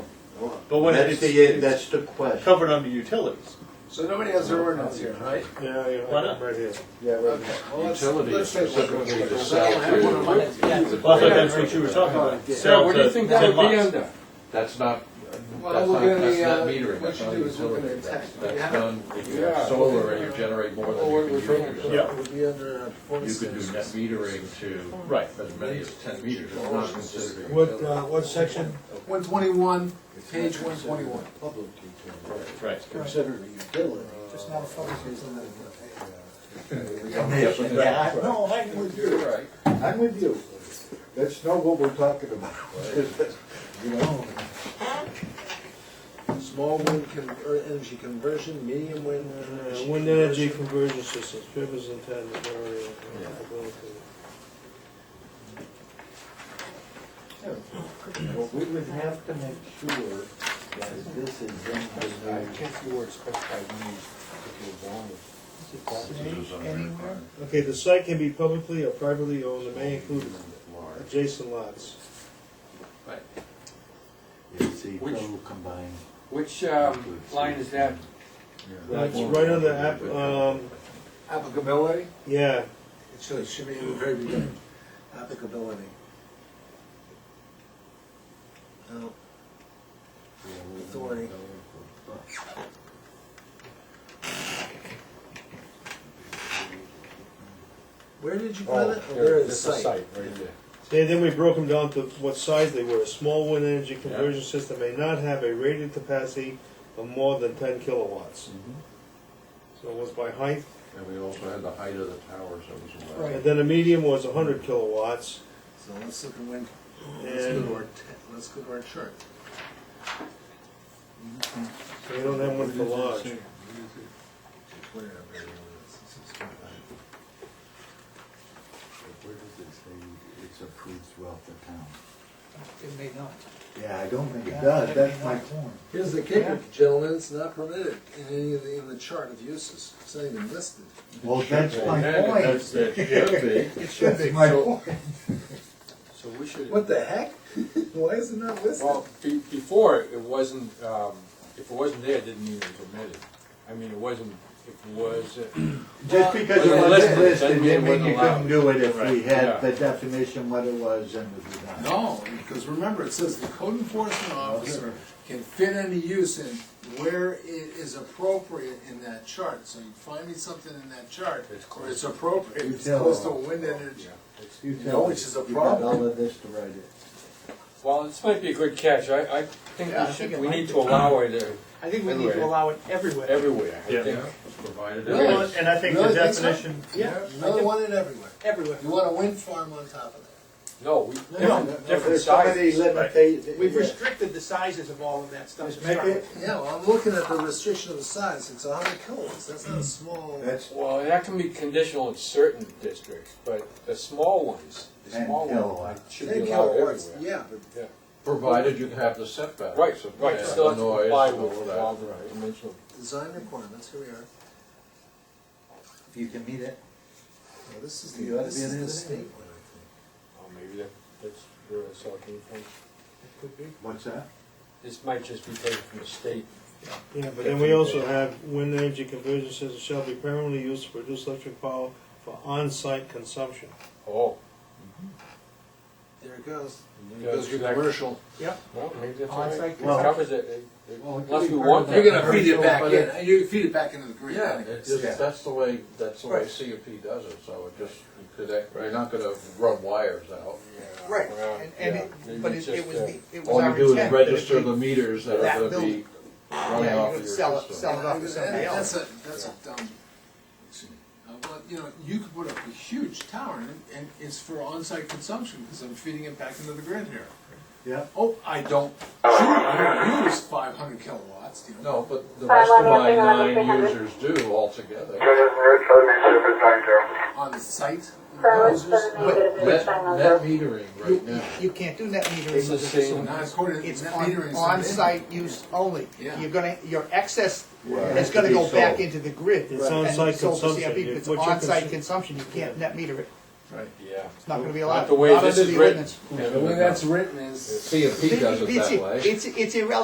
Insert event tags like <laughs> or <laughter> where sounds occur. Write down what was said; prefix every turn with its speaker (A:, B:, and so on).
A: But when it's
B: That's the, that's the
A: it's
B: question.
A: covered under utilities,
C: So nobody has their ordinance here, right?
D: Yeah,
A: Why not?
D: yeah, right here.
B: Yeah, right.
C: Okay. Well, let's-
E: Utilities
C: let's take a look at
E: specifically to
C: what's
E: sell
C: going on.
E: to.
A: well, I thought that's what you were talking about,
E: Yeah,
A: sell
E: what do you
A: to
E: think that
A: ten
E: would be
A: lots.
E: under? That's not, that's
C: Well, we're
E: not,
C: gonna
E: that's
C: be, uh,
E: not metering,
C: what
E: that's
C: you
E: not
C: do is look at the
E: utility. That's,
C: tax.
E: that's
C: Yeah.
E: done, if you
D: Yeah.
E: have solar and you generate more than
D: Oh, what
E: you
D: we're
E: can use.
D: talking
A: Yeah.
D: about would be under uh,
E: You could do net
D: twenty-six.
E: metering to
A: Right.
E: as many as ten meters, it's not considered. a
D: What,
E: utility.
D: uh, what section?
C: One twenty-one, page one twenty-one.
B: Public utility,
A: Right.
B: considered a utility.
D: Just not a fucking utility.
E: Yes, and that-
B: I-
D: Uh,
B: No, I'm with you,
E: You're right.
B: I'm with you. That's not what we're talking about. <laughs> You know?
C: Small wind er, energy conversion, medium wind
D: Wind energy conversion systems, rivers and towns, area.
B: But we would have to make sure that this is in the. I can't see where it's specified
D: Okay, the site can be publicly or privately owned, it may include adjacent lots.
F: Right.
B: It's
F: Which-
B: equal combined.
F: Which um, line is that?
D: That's right on the app, um,
C: Applicability?
D: yeah,
C: It should, it should be in the very beginning, applicability. No, Authority. Where did you put it? Where Oh, is the site?
B: right there.
D: Then, then we broke them down to what size they were. A small wind energy conversion system may not have a rated capacity of more than ten kilowatts.
B: Mm-hmm.
D: So it was by height,
E: And we also had the height of the towers that was allowed.
D: and then a medium was hundred kilowatts,
C: So let's look at when, let's go to
D: and
C: our, te- let's go to our chart.
D: so you don't have one for large.
B: Where does it say it's approved throughout the town?
G: It may not.
B: Yeah, I don't think it does, that's my point.
C: Here's the kicker, gentlemen, it's not permitted in any of the, in the chart of uses, it's not even listed.
B: Well, that's my
E: Yeah,
B: point.
E: That's, that should be.
B: That's my point.
F: So we should.
C: What the heck? <laughs> Why is it not listed?
F: Well, be, before it wasn't. Um, if it wasn't there, it didn't mean it was omitted. I mean, it wasn't. It was. Uh,
B: Just because it
F: Well,
B: wasn't
F: listen,
B: listed,
F: doesn't mean it
B: didn't mean you
F: wasn't allowed.
B: couldn't do it if we
F: yeah.
B: had the definition what it was and the design.
C: No, because remember, it says the code enforcement officer can fit any use in where it is appropriate in that chart. So you find me something in that chart, or it's appropriate,
B: You
C: it's
B: tell
C: close to
B: them.
C: wind energy.
B: You
C: No,
B: tell
C: which
B: us.
C: is a
B: You got
C: problem.
B: all of this to write it.
F: well, this might be a good catch. I, I think
G: Yeah, I
F: we should.
G: think it
F: We
G: might
F: need
G: be.
F: to allow it uh,
G: I think we need to
F: Everywhere.
G: allow it everywhere.
F: everywhere. I
A: Yeah.
F: think.
E: Provided it
C: Well,
E: is.
A: And I think the
C: Really think so?
A: definition,
G: Yeah,
C: Another one in everywhere.
G: everywhere.
C: You want a wind farm on top of that.
F: No, we
B: No,
F: different,
B: no,
F: different
B: there's so many
F: sizes.
B: limitations.
G: We've restricted the sizes of all of that stuff.
B: Just make it,
C: Yeah, well, I'm looking at the restriction of the size, it's a hundred kilowatts, that's not a small.
B: that's
F: Well, that can be conditional in certain districts, but the small ones, the
B: And
F: small
B: kilowatt.
F: ones should be
C: Ten
F: allowed
C: kilowatts,
F: everywhere.
C: yeah, but
E: Provided you have the setbacks.
F: Right,
E: of
F: right.
E: the
F: Still have to
E: noise
F: comply
E: and
F: with
E: all
F: the
E: that.
F: law of dimensional
C: design requirements, here we are.
B: if you can meet it.
C: Now, this is
B: You ought
C: the,
B: to
C: this
B: be
C: is
B: in
C: the
B: this
C: state
B: thing.
C: one, I
F: Oh, maybe that, that's where I saw it came from.
B: What's that?
F: This might just be taken from the state.
D: Yeah, but then we also have wind energy conversion systems shall be permanently used to produce electric power for on-site consumption.
F: Oh.
C: think. There it goes.
F: Goes to commercial.
G: Yep.
F: Well, maybe that's
G: Oh,
F: all
G: it's
F: right.
G: like-
F: It covers it, it- it-
B: Well, it
F: unless
B: could
F: we
B: be
F: want
B: part
F: that.
B: of
C: You're gonna feed Oh, it
E: Commercial,
C: back
E: but
C: in,
E: it-
C: you feed it back into the grid.
E: Yeah, it
B: Yeah.
E: just, that's the way, that's the way
G: Right.
E: CFP does it, so it just, connect- you're not gonna run wires out.
G: Right,
F: Well,
G: and, and
E: yeah. uh,
G: it, but it,
F: Maybe
G: it was
F: just,
G: the, it was
E: All
G: our
E: you do is
G: intent that it
E: register
G: be-
E: the meters that
G: that
E: are gonna be
G: building.
E: running off
G: Yeah, you
E: of
G: would
E: your
G: sell it,
E: system.
G: sell it off to somebody
C: That- That's
G: else.
C: a, that's a dumb, uh, well, you know, you could put up a huge tower and, and it's for on-site consumption, because I'm feeding it back into the grid here.
B: Yeah.
C: Oh, I don't, I don't use five hundred kilowatts, you know.
E: No, but the rest of my nine users do altogether.
C: on the site.
E: Net, net metering right
G: You,
E: now.
G: you can't do net metering.
F: It's the
G: with
F: same-
G: facility.
C: Not according to
G: It's
C: net
G: on,
C: metering, so-
G: on-site use only.
C: Yeah.
G: You're gonna, your excess
B: Has
G: is
B: to
G: gonna
B: be
G: go back
B: sold.
G: into the grid.
D: It's
G: and
D: on-site
G: sold to CIP.
D: consumption.
G: It's
D: What you're
G: on-site
D: consum-
G: consumption, you can't net meter it.
F: Yeah.
G: It's not gonna be allowed.
F: Not the way
G: Not
F: this
G: under
F: is
G: the
F: written.
G: ordinance.
C: The way that's written is.
E: CFP does it
G: It's-
E: that way.
G: It's, it's irrelevant